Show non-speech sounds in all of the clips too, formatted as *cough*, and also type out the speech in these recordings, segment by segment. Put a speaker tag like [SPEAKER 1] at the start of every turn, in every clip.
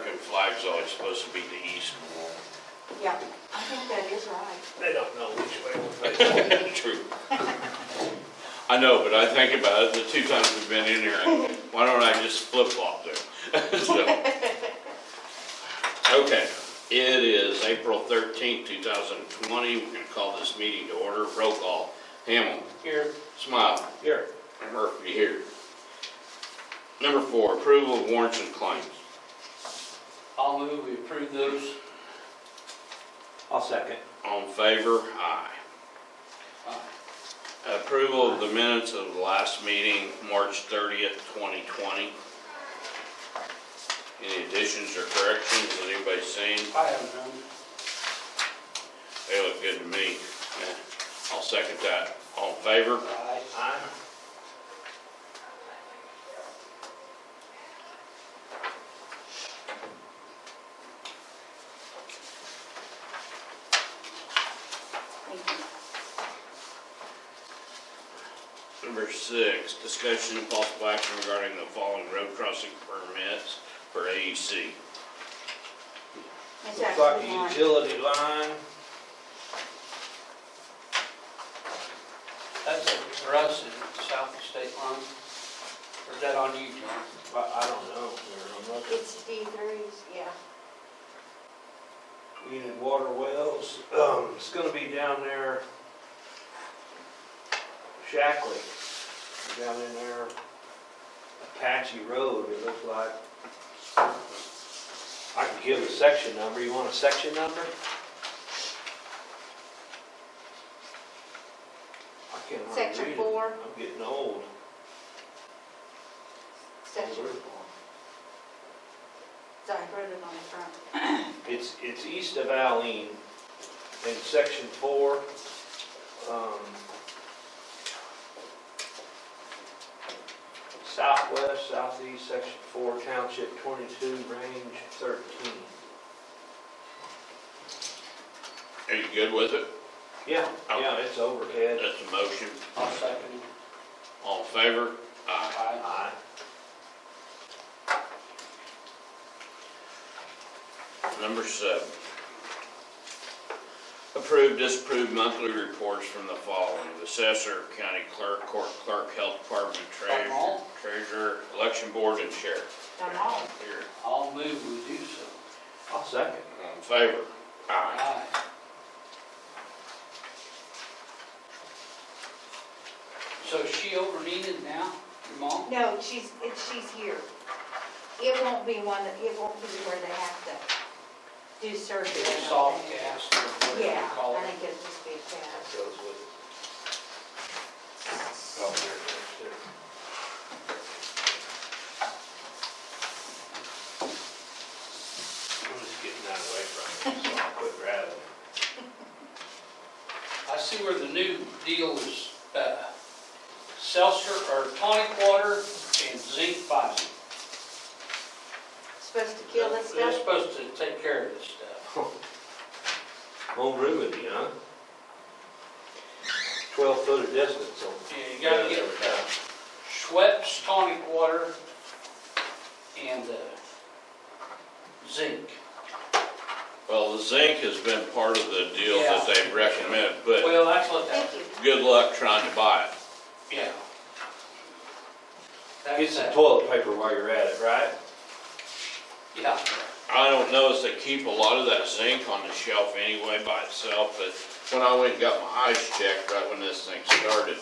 [SPEAKER 1] is always supposed to be the east wall.
[SPEAKER 2] Yeah, I think that is right.
[SPEAKER 3] They don't know which way we're facing.
[SPEAKER 1] True. I know, but I think about it, the two times we've been in here, I- why don't I just flip flop *laughs* there? So, Okay, it is April thirteenth, two thousand twenty, we're gonna call this meeting to order, roll call. Hamel. Here. Smile. Here. And Murphy here. Number four, approval of warrants and claims.
[SPEAKER 4] I'll move, we approve those.
[SPEAKER 3] I'll second.
[SPEAKER 1] All in favor? Aye.
[SPEAKER 4] Aye.
[SPEAKER 1] Approval of the minutes of the last meeting, March thirtieth, twenty twenty. Any additions or corrections that anybody's seen?
[SPEAKER 4] I have none.
[SPEAKER 1] They look good to me. Yeah, I'll second that. All in favor?
[SPEAKER 4] Aye.
[SPEAKER 3] Aye.
[SPEAKER 2] Thank you.
[SPEAKER 1] Number six, discussion and possible action regarding the following road crossing permits for E AEC.
[SPEAKER 2] It's
[SPEAKER 3] Looks like
[SPEAKER 2] actually
[SPEAKER 3] the
[SPEAKER 2] mine.
[SPEAKER 3] utility line,
[SPEAKER 4] That's for us in south of state line. Or is that on you, John?
[SPEAKER 3] I, I don't know, Mayor, I'm not-
[SPEAKER 2] It's D threes, yeah.
[SPEAKER 3] Unit water wells, um, it's gonna be down there. Shackley, down in there, Apache Road, it looks like. I can give a section number, you want a section number? I can't hardly
[SPEAKER 2] Section
[SPEAKER 3] read it.
[SPEAKER 2] four.
[SPEAKER 3] I'm getting old.
[SPEAKER 2] Section
[SPEAKER 3] Over.
[SPEAKER 2] four. So I wrote it on the front.
[SPEAKER 3] It's, it's east of Alene in section four. um, Southwest, southeast, section four, township twenty-two, range thirteen.
[SPEAKER 1] Are you good with it?
[SPEAKER 3] Yeah, yeah, it's overhead.
[SPEAKER 1] That's a motion.
[SPEAKER 4] I'll second it.
[SPEAKER 1] All in favor? Aye.
[SPEAKER 4] Aye.
[SPEAKER 3] Aye.
[SPEAKER 1] Number seven. Approve, disapprove monthly reports from the following: assessor, county clerk, court clerk, health department,
[SPEAKER 4] Them
[SPEAKER 1] treasurer,
[SPEAKER 4] all?
[SPEAKER 1] treasurer, election board, and sheriff.
[SPEAKER 2] Done all.
[SPEAKER 1] Here,
[SPEAKER 4] I'll move, we do so.
[SPEAKER 3] I'll second.
[SPEAKER 1] all in favor? Aye.
[SPEAKER 4] Aye. So is she over needed now, your mom?
[SPEAKER 2] No, she's, it- she's here. It won't be one, that it won't be where they have to do surgery. I don't
[SPEAKER 4] Soft
[SPEAKER 2] think.
[SPEAKER 4] gas or whatever
[SPEAKER 2] Yeah,
[SPEAKER 4] you call
[SPEAKER 2] I
[SPEAKER 4] it.
[SPEAKER 2] think it'll just be a cat.
[SPEAKER 3] That goes with it. Oh, there it is, too. I'm just getting that away from it, so I'll quit grabbing it.
[SPEAKER 4] I see where the new deal is, uh, seltzer or tonic water and zinc Visor.
[SPEAKER 2] Supposed to kill this
[SPEAKER 4] They're
[SPEAKER 2] stuff?
[SPEAKER 4] supposed to take care of this stuff.
[SPEAKER 3] Home room with you, huh? Twelve foot of distance on.
[SPEAKER 4] Yeah, you gotta get uh, Schweppes tonic water and uh, zinc.
[SPEAKER 1] Well, the zinc has been part of the deal that
[SPEAKER 4] Yeah.
[SPEAKER 1] they recommend, but
[SPEAKER 4] Well, that's what that,
[SPEAKER 2] Thank you.
[SPEAKER 1] good luck trying to buy it.
[SPEAKER 4] yeah.
[SPEAKER 3] Get
[SPEAKER 4] That's
[SPEAKER 3] some
[SPEAKER 4] that,
[SPEAKER 3] toilet paper while you're at it, right?
[SPEAKER 4] yeah.
[SPEAKER 1] I don't know if they keep a lot of that zinc on the shelf anyway by itself, but when I went and got my eyes checked, right when this thing started,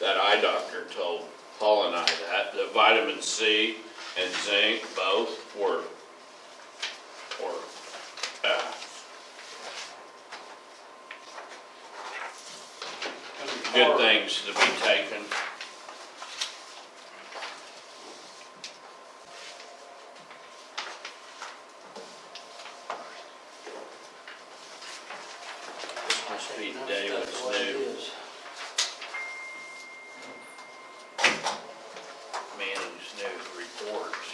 [SPEAKER 1] that eye doctor told Paul and I that, the vitamin C and zinc both were, were, uh, good things to be taken. This must be the day when it's
[SPEAKER 4] That's what it
[SPEAKER 1] new,
[SPEAKER 4] is.
[SPEAKER 1] man, these new reports.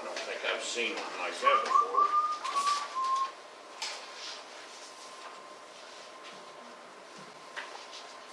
[SPEAKER 1] I don't think I've seen one like that before.